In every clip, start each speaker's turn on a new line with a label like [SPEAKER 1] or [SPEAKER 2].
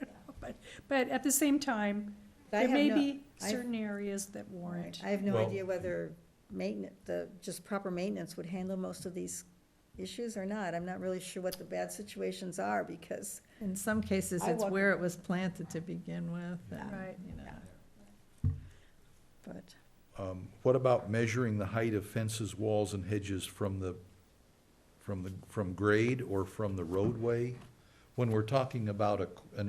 [SPEAKER 1] But at the same time,
[SPEAKER 2] I
[SPEAKER 1] there
[SPEAKER 2] have
[SPEAKER 1] may
[SPEAKER 2] no-
[SPEAKER 1] be
[SPEAKER 2] I've-
[SPEAKER 1] certain areas that warrant.
[SPEAKER 2] Right. I have no
[SPEAKER 3] Well-
[SPEAKER 2] idea whether maintenance, the, just proper maintenance would handle most of these issues or not. I'm not really sure what the bad situations are, because
[SPEAKER 4] In some cases,
[SPEAKER 2] I
[SPEAKER 4] it's
[SPEAKER 2] walk-
[SPEAKER 4] where it was planted to begin with,
[SPEAKER 1] Right.
[SPEAKER 4] and, you know.
[SPEAKER 2] But
[SPEAKER 3] Um, What about measuring the height of fences, walls, and hedges from the, from the, from grade or from the roadway? When we're talking about a, an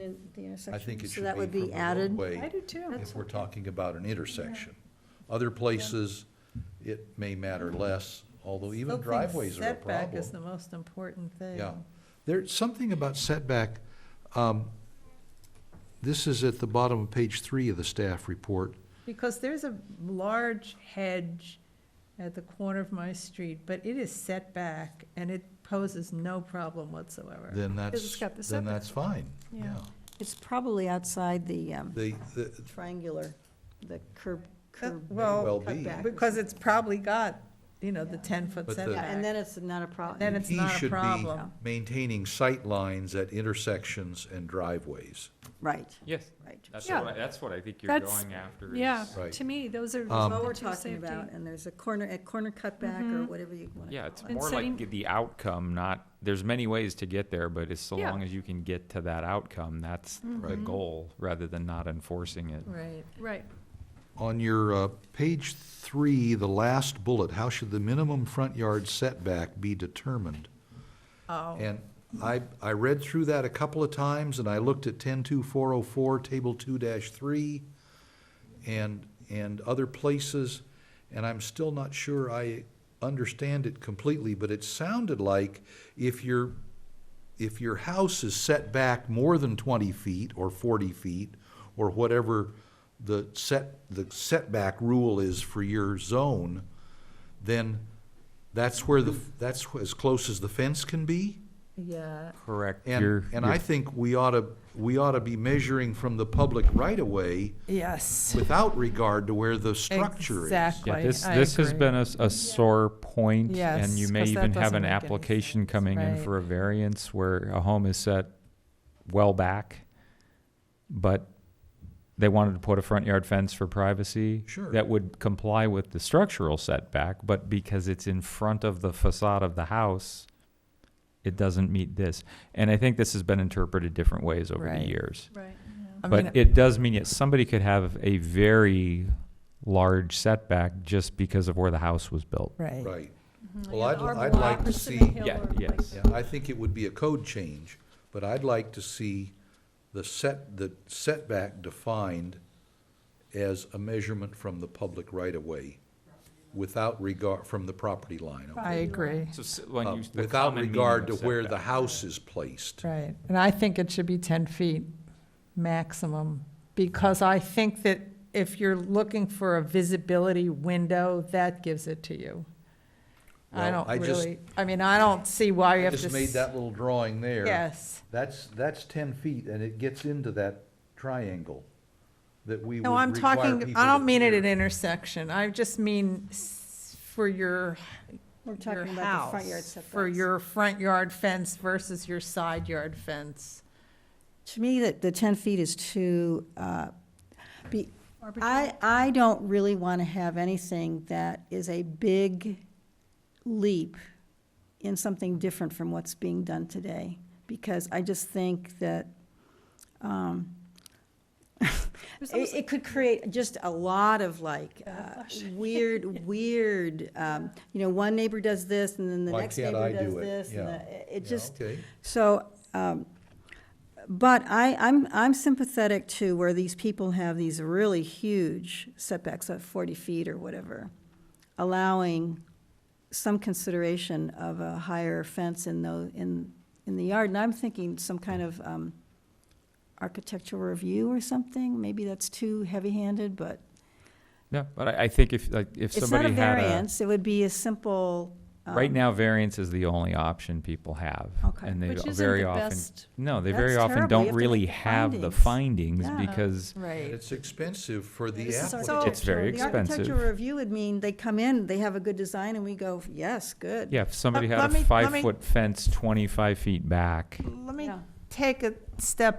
[SPEAKER 2] in in the
[SPEAKER 3] I
[SPEAKER 2] intersection,
[SPEAKER 3] think it
[SPEAKER 2] so
[SPEAKER 3] should
[SPEAKER 2] that would
[SPEAKER 3] be
[SPEAKER 2] be
[SPEAKER 3] from the
[SPEAKER 2] added.
[SPEAKER 1] I
[SPEAKER 3] roadway
[SPEAKER 1] do too.
[SPEAKER 3] if we're talking about an intersection. Other places, it may matter less, although
[SPEAKER 4] Still
[SPEAKER 3] even
[SPEAKER 4] think
[SPEAKER 3] driveways are a
[SPEAKER 4] Setback
[SPEAKER 3] problem.
[SPEAKER 4] is the most important thing.
[SPEAKER 3] Yeah. There's something about setback, um, this is at the bottom of page three of the staff report.
[SPEAKER 4] Because there's a large hedge at the corner of my street, but it is set back, and it poses no problem whatsoever.
[SPEAKER 3] Then
[SPEAKER 1] it's
[SPEAKER 3] that's,
[SPEAKER 1] got the
[SPEAKER 3] then
[SPEAKER 1] setback.
[SPEAKER 3] that's fine,
[SPEAKER 1] Yeah.
[SPEAKER 3] yeah.
[SPEAKER 2] It's probably outside the um,
[SPEAKER 3] The, the,
[SPEAKER 2] triangular, the curb, curb.
[SPEAKER 4] Well,
[SPEAKER 3] well be.
[SPEAKER 2] cutback.
[SPEAKER 4] because it's probably got, you know, the ten-foot
[SPEAKER 3] But the-
[SPEAKER 2] Yeah, and
[SPEAKER 4] setback.
[SPEAKER 2] then it's not a
[SPEAKER 4] Then
[SPEAKER 2] problem.
[SPEAKER 4] it's
[SPEAKER 3] he
[SPEAKER 4] not a
[SPEAKER 3] should be
[SPEAKER 4] problem.
[SPEAKER 3] Maintaining sight lines at intersections and driveways.
[SPEAKER 2] Right,
[SPEAKER 5] Yes,
[SPEAKER 2] right.
[SPEAKER 3] Um,
[SPEAKER 5] that's
[SPEAKER 1] Yeah.
[SPEAKER 5] what, I- that's what I think you're
[SPEAKER 1] That's-
[SPEAKER 5] going after.
[SPEAKER 1] Yeah,
[SPEAKER 5] is-
[SPEAKER 3] Right.
[SPEAKER 1] to me, those are
[SPEAKER 2] That's
[SPEAKER 3] Um,
[SPEAKER 2] what
[SPEAKER 1] the
[SPEAKER 2] we're
[SPEAKER 1] two
[SPEAKER 2] talking
[SPEAKER 1] safety.
[SPEAKER 2] about, and there's a corner, a corner cutback or whatever you want to
[SPEAKER 5] Yeah,
[SPEAKER 2] call it.
[SPEAKER 5] it's
[SPEAKER 1] And
[SPEAKER 5] more
[SPEAKER 1] setting-
[SPEAKER 5] like the outcome, not, there's many ways to get there, but it's so
[SPEAKER 1] Yeah. Mm-hmm.
[SPEAKER 5] long as you can get to that outcome, that's the
[SPEAKER 3] Right.
[SPEAKER 5] goal, rather than not enforcing it.
[SPEAKER 4] Right.
[SPEAKER 1] Right,
[SPEAKER 3] On your, uh, page three, the last bullet, how should the minimum front yard setback be determined?
[SPEAKER 4] Oh,
[SPEAKER 3] And I, I read through that a couple of times, and I looked at ten-two-four-oh-four, oh table two dash three, and, and other places, and I'm still not sure I understand it completely, but it sounded like if your, if your house is set back more than twenty feet or forty feet, or whatever the set, the setback rule is for your zone, then that's where the, that's as close as the fence can be?
[SPEAKER 4] yeah,
[SPEAKER 5] Correct.
[SPEAKER 3] And, and I think we ought to, we ought to be measuring from the public right-of-way
[SPEAKER 4] yes.
[SPEAKER 3] without regard to where the structure is.
[SPEAKER 4] Exactly.
[SPEAKER 5] Yeah, this,
[SPEAKER 4] I
[SPEAKER 5] this has
[SPEAKER 4] agree.
[SPEAKER 5] been a, s- a sore point, and you
[SPEAKER 4] Yes,
[SPEAKER 5] may
[SPEAKER 4] 'cause that
[SPEAKER 5] even have
[SPEAKER 4] doesn't
[SPEAKER 5] an
[SPEAKER 4] make any
[SPEAKER 5] application
[SPEAKER 4] sense,
[SPEAKER 5] coming in
[SPEAKER 4] right.
[SPEAKER 5] for a variance where a home is set well back, but they wanted to put a front yard fence for privacy.
[SPEAKER 3] Sure.
[SPEAKER 5] That would comply with the structural setback, but because it's in front of the facade of the house, it doesn't meet this. And I think this has been interpreted different ways over the
[SPEAKER 4] Right.
[SPEAKER 5] years.
[SPEAKER 1] right.
[SPEAKER 4] I mean,
[SPEAKER 5] But it does mean that somebody could have a very large setback just because of where the house was built.
[SPEAKER 4] Right.
[SPEAKER 3] Right.
[SPEAKER 1] Mhm.
[SPEAKER 4] Mm-hmm.
[SPEAKER 3] Well, I'd-
[SPEAKER 1] Or
[SPEAKER 3] I'd like to
[SPEAKER 1] blocks in a
[SPEAKER 3] see-
[SPEAKER 1] hill
[SPEAKER 5] Yeah,
[SPEAKER 1] or like
[SPEAKER 5] yes.
[SPEAKER 3] Yeah,
[SPEAKER 1] that.
[SPEAKER 3] I think it would be a code change, but I'd like to see the set, the setback defined as a measurement from the public right-of-way without regard, from the property line. okay?
[SPEAKER 4] I agree.
[SPEAKER 5] So s- when
[SPEAKER 3] Uh,
[SPEAKER 5] you, the
[SPEAKER 3] Without
[SPEAKER 5] common meaning
[SPEAKER 3] regard
[SPEAKER 5] of
[SPEAKER 3] to where the
[SPEAKER 5] setback.
[SPEAKER 3] house is placed.
[SPEAKER 4] Right, and I think it should be ten feet maximum, because I think that if you're looking for a visibility window, that gives it to you. I
[SPEAKER 3] Well,
[SPEAKER 4] don't
[SPEAKER 3] I just-
[SPEAKER 4] really, I mean, I don't see why you
[SPEAKER 3] I
[SPEAKER 4] have to.
[SPEAKER 3] just made
[SPEAKER 4] s-
[SPEAKER 3] that little drawing there.
[SPEAKER 4] Yes,
[SPEAKER 3] That's, that's ten feet, and it gets into that triangle that we would
[SPEAKER 4] no, I'm
[SPEAKER 3] require
[SPEAKER 4] talking,
[SPEAKER 3] people
[SPEAKER 4] I
[SPEAKER 3] to
[SPEAKER 4] don't mean it at
[SPEAKER 3] clear.
[SPEAKER 4] intersection, I just mean s- for your,
[SPEAKER 2] We're
[SPEAKER 4] your
[SPEAKER 2] talking about the front yard
[SPEAKER 4] house. For
[SPEAKER 2] setbacks.
[SPEAKER 4] your front yard fence versus your side yard fence.
[SPEAKER 2] To me, the, the 10 feet is too, uh, be,
[SPEAKER 1] Arbitrary.
[SPEAKER 2] I, I don't really want to have anything that is a big leap in something different from what's being done today, because I just think that um,
[SPEAKER 1] There's
[SPEAKER 2] it,
[SPEAKER 1] almost-
[SPEAKER 2] it could create just a lot of like uh,
[SPEAKER 1] Backlash.
[SPEAKER 2] weird, weird, um, you know, one neighbor does this, and then the
[SPEAKER 3] Why
[SPEAKER 2] next
[SPEAKER 3] can't
[SPEAKER 2] neighbor
[SPEAKER 3] I
[SPEAKER 2] does
[SPEAKER 3] do it?
[SPEAKER 2] this, and
[SPEAKER 3] Yeah.
[SPEAKER 2] the- it
[SPEAKER 3] Yeah,
[SPEAKER 2] just,
[SPEAKER 3] okay.
[SPEAKER 2] so, um, but I, I'm, I'm sympathetic to where these people have these really huge setbacks of 40 feet or whatever, allowing some consideration of a higher fence in the, in, in the yard. And I'm thinking some kind of um, architectural review or something. Maybe that's too heavy-handed, but
[SPEAKER 5] Yeah, but I, I think if, like, if
[SPEAKER 2] it's not a
[SPEAKER 5] somebody had a,
[SPEAKER 2] variance. It would be a simple.
[SPEAKER 5] right
[SPEAKER 2] um,
[SPEAKER 5] now variance is the only option people have.
[SPEAKER 2] Okay.
[SPEAKER 5] And they
[SPEAKER 1] Which
[SPEAKER 5] don't-
[SPEAKER 1] isn't
[SPEAKER 5] very
[SPEAKER 1] the
[SPEAKER 5] often,
[SPEAKER 1] best-
[SPEAKER 5] no, they
[SPEAKER 2] That's
[SPEAKER 5] very often
[SPEAKER 2] terrible. You
[SPEAKER 5] don't
[SPEAKER 2] have to make
[SPEAKER 5] really
[SPEAKER 2] the
[SPEAKER 5] have the
[SPEAKER 2] findings.
[SPEAKER 5] findings
[SPEAKER 2] Yeah.
[SPEAKER 5] because
[SPEAKER 3] And
[SPEAKER 4] Right.
[SPEAKER 3] It's expensive for the
[SPEAKER 1] This is
[SPEAKER 3] applicant.
[SPEAKER 1] architectural.
[SPEAKER 5] It's very
[SPEAKER 2] The
[SPEAKER 5] expensive.
[SPEAKER 2] architectural review would mean they come in, they have a good design, and we go, yes, good.
[SPEAKER 5] Yeah, if somebody
[SPEAKER 4] Let-
[SPEAKER 5] had
[SPEAKER 4] let me-
[SPEAKER 5] a
[SPEAKER 4] let me-
[SPEAKER 5] five-foot fence, twenty-five feet back.
[SPEAKER 4] Let me
[SPEAKER 2] Yeah.
[SPEAKER 4] take a step